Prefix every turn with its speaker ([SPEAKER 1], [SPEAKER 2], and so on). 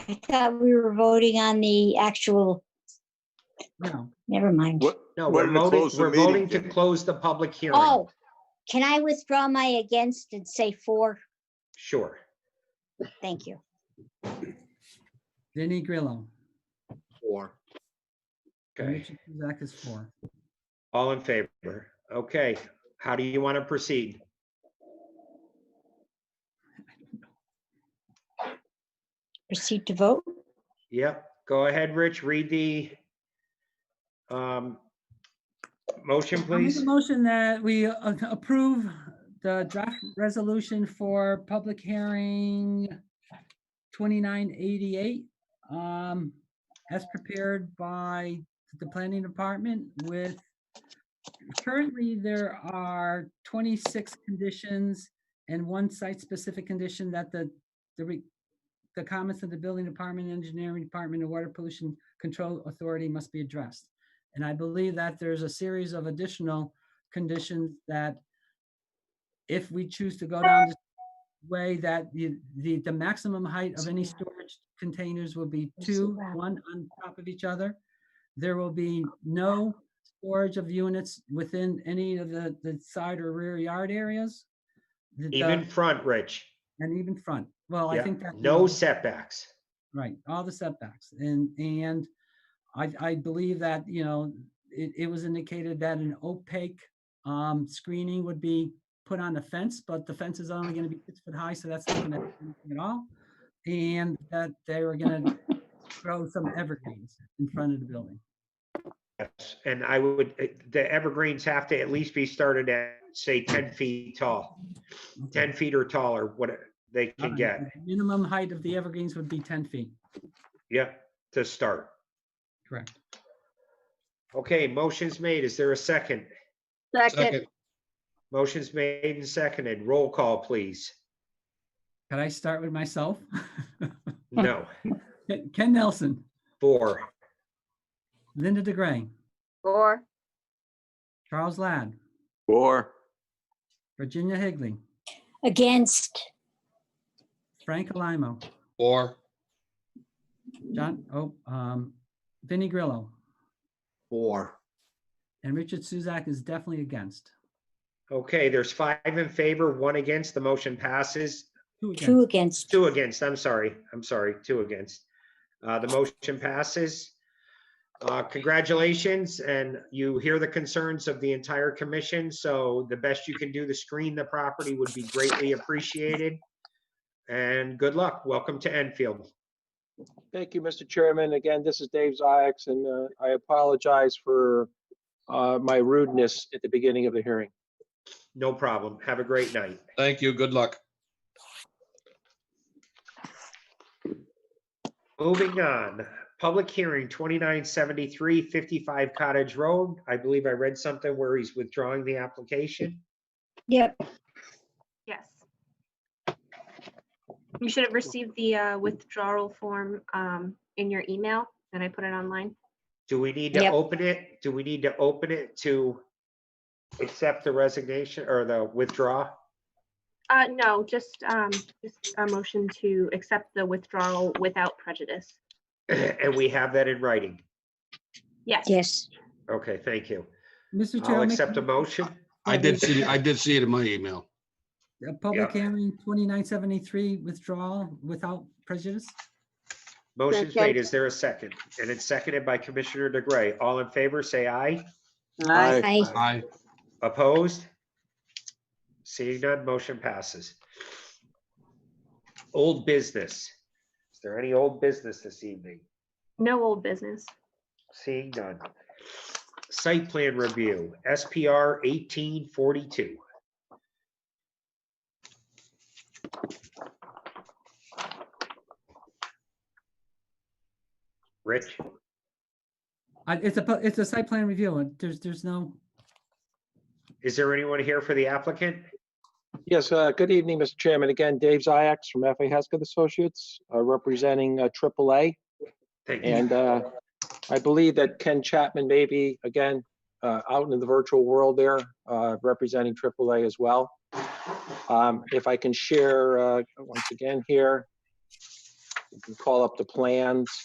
[SPEAKER 1] I thought we were voting on the actual,
[SPEAKER 2] No,
[SPEAKER 1] never mind.
[SPEAKER 3] What,
[SPEAKER 2] no,
[SPEAKER 3] We're
[SPEAKER 2] we're
[SPEAKER 3] gonna
[SPEAKER 2] voting,
[SPEAKER 3] close the
[SPEAKER 2] we're
[SPEAKER 3] meeting,
[SPEAKER 2] voting to
[SPEAKER 3] Jenny.
[SPEAKER 2] close the public hearing.
[SPEAKER 1] Oh, can I withdraw my against and say four?
[SPEAKER 2] Sure.
[SPEAKER 1] Thank you.
[SPEAKER 4] Vinnie Grillo.
[SPEAKER 5] Four.
[SPEAKER 2] Okay,
[SPEAKER 4] Richard Kuzak is four.
[SPEAKER 2] all in favor. Okay, how do you want to proceed?
[SPEAKER 1] Proceed to vote?
[SPEAKER 2] Yep, go ahead, Rich, read the um, motion,
[SPEAKER 4] I make
[SPEAKER 2] please.
[SPEAKER 4] a motion that we uh, approve the draft resolution for public hearing 2988, um, as prepared by the planning department with, currently, there are 26 conditions and one site-specific condition that the, the re- the comments of the building department, engineering department, and water pollution control authority must be addressed. And I believe that there's a series of additional conditions that if we choose to go down this way, that the, the, the maximum height of any storage containers will be
[SPEAKER 1] Yes,
[SPEAKER 4] two,
[SPEAKER 1] wow.
[SPEAKER 4] one on top of each other. There will be no storage of units within any of the, the side or rear yard areas. The- the-
[SPEAKER 2] Even front, Rich.
[SPEAKER 4] And even front. Well, I
[SPEAKER 2] Yeah,
[SPEAKER 4] think that.
[SPEAKER 2] No setbacks.
[SPEAKER 4] Right, all the setbacks. And, and I, I believe that, you know, it, it was indicated that an opaque um, screening would be put on the fence, but the fence is only gonna be six foot high, so that's not gonna do anything at all. And that they were gonna grow some evergreens in front of the building.
[SPEAKER 2] Yes, and I would, uh, the evergreens have to at least be started at, say, ten feet tall, ten feet or taller, what they can
[SPEAKER 4] Alright,
[SPEAKER 2] get,
[SPEAKER 4] the Minimum height of the evergreens would be ten feet,
[SPEAKER 2] yep, to start.
[SPEAKER 4] correct.
[SPEAKER 2] Okay, motion's made, is there a second?
[SPEAKER 5] Second.
[SPEAKER 2] Motion's made and seconded, roll call, please.
[SPEAKER 4] Could I start with myself?
[SPEAKER 2] No,
[SPEAKER 4] Ken- Ken Nelson,
[SPEAKER 2] four,
[SPEAKER 4] Linda DeGray,
[SPEAKER 6] Four,
[SPEAKER 4] Charles Ladd,
[SPEAKER 3] four,
[SPEAKER 4] Virginia Higley,
[SPEAKER 1] Against,
[SPEAKER 4] Frank Alamo,
[SPEAKER 5] Four.
[SPEAKER 4] John, oh, um, Vinnie Grillo,
[SPEAKER 5] Four.
[SPEAKER 4] and Richard Suzak is definitely against.
[SPEAKER 2] okay, there's five in favor, one against, the motion passes,
[SPEAKER 4] Two
[SPEAKER 1] two
[SPEAKER 4] against.
[SPEAKER 1] against.
[SPEAKER 2] two against, I'm sorry, I'm sorry, two against. Uh, the motion passes. Uh, congratulations, and you hear the concerns of the entire commission, so the best you can do to screen the property would be greatly appreciated. And good luck. Welcome to Enfield.
[SPEAKER 7] Thank you, Mr. Chairman. Again, this is Dave Ziyax, and uh, I apologize for uh, my rudeness at the beginning of the hearing.
[SPEAKER 2] No problem. Have a great night.
[SPEAKER 5] Thank you. Good luck.
[SPEAKER 2] Moving on, public hearing 2973 55 Cottage Road. I believe I read something where he's withdrawing the application.
[SPEAKER 1] Yep,
[SPEAKER 6] yes. You should have received the uh, withdrawal form um, in your email, and I put it online.
[SPEAKER 2] Do we need to
[SPEAKER 1] Yep.
[SPEAKER 2] open it? Do we need to open it to accept the resignation or the withdraw?
[SPEAKER 6] Uh, no, just, um, just a motion to accept the withdrawal without prejudice.
[SPEAKER 2] And we have that in writing.
[SPEAKER 6] Yes,
[SPEAKER 1] yes.
[SPEAKER 2] Okay, thank you.
[SPEAKER 4] Mr. Chair,
[SPEAKER 2] I'll
[SPEAKER 4] I'll make
[SPEAKER 2] accept a motion.
[SPEAKER 5] I did see, I did see it in my email.
[SPEAKER 4] a public
[SPEAKER 2] yeah.
[SPEAKER 4] hearing, twenty-nine seventy-three withdrawal without prejudice.
[SPEAKER 2] Motion's made. Is there a second? And it's seconded by Commissioner DeGray. All in favor, say aye.
[SPEAKER 1] I,
[SPEAKER 5] I,
[SPEAKER 2] Opposed? Seeing none, motion passes. Old business. Is there any old business this evening?
[SPEAKER 6] no old business.
[SPEAKER 2] Seeing none. Site plan review, SPR eighteen forty-two. Rich,
[SPEAKER 4] I- It's a, pu- it's a site plan review, and there's, there's no,
[SPEAKER 2] is there anyone here for the applicant?
[SPEAKER 7] Yes, uh, good evening, Mr. Chairman. Again, Dave Ziyax from F.A. Haskett Associates, uh, representing uh, AAA.
[SPEAKER 2] Thank you.
[SPEAKER 7] And uh, I believe that Ken Chapman may be, again, uh, out in the virtual world there, uh, representing AAA as well. Um, If I can share uh, once again here. You can call up the plans.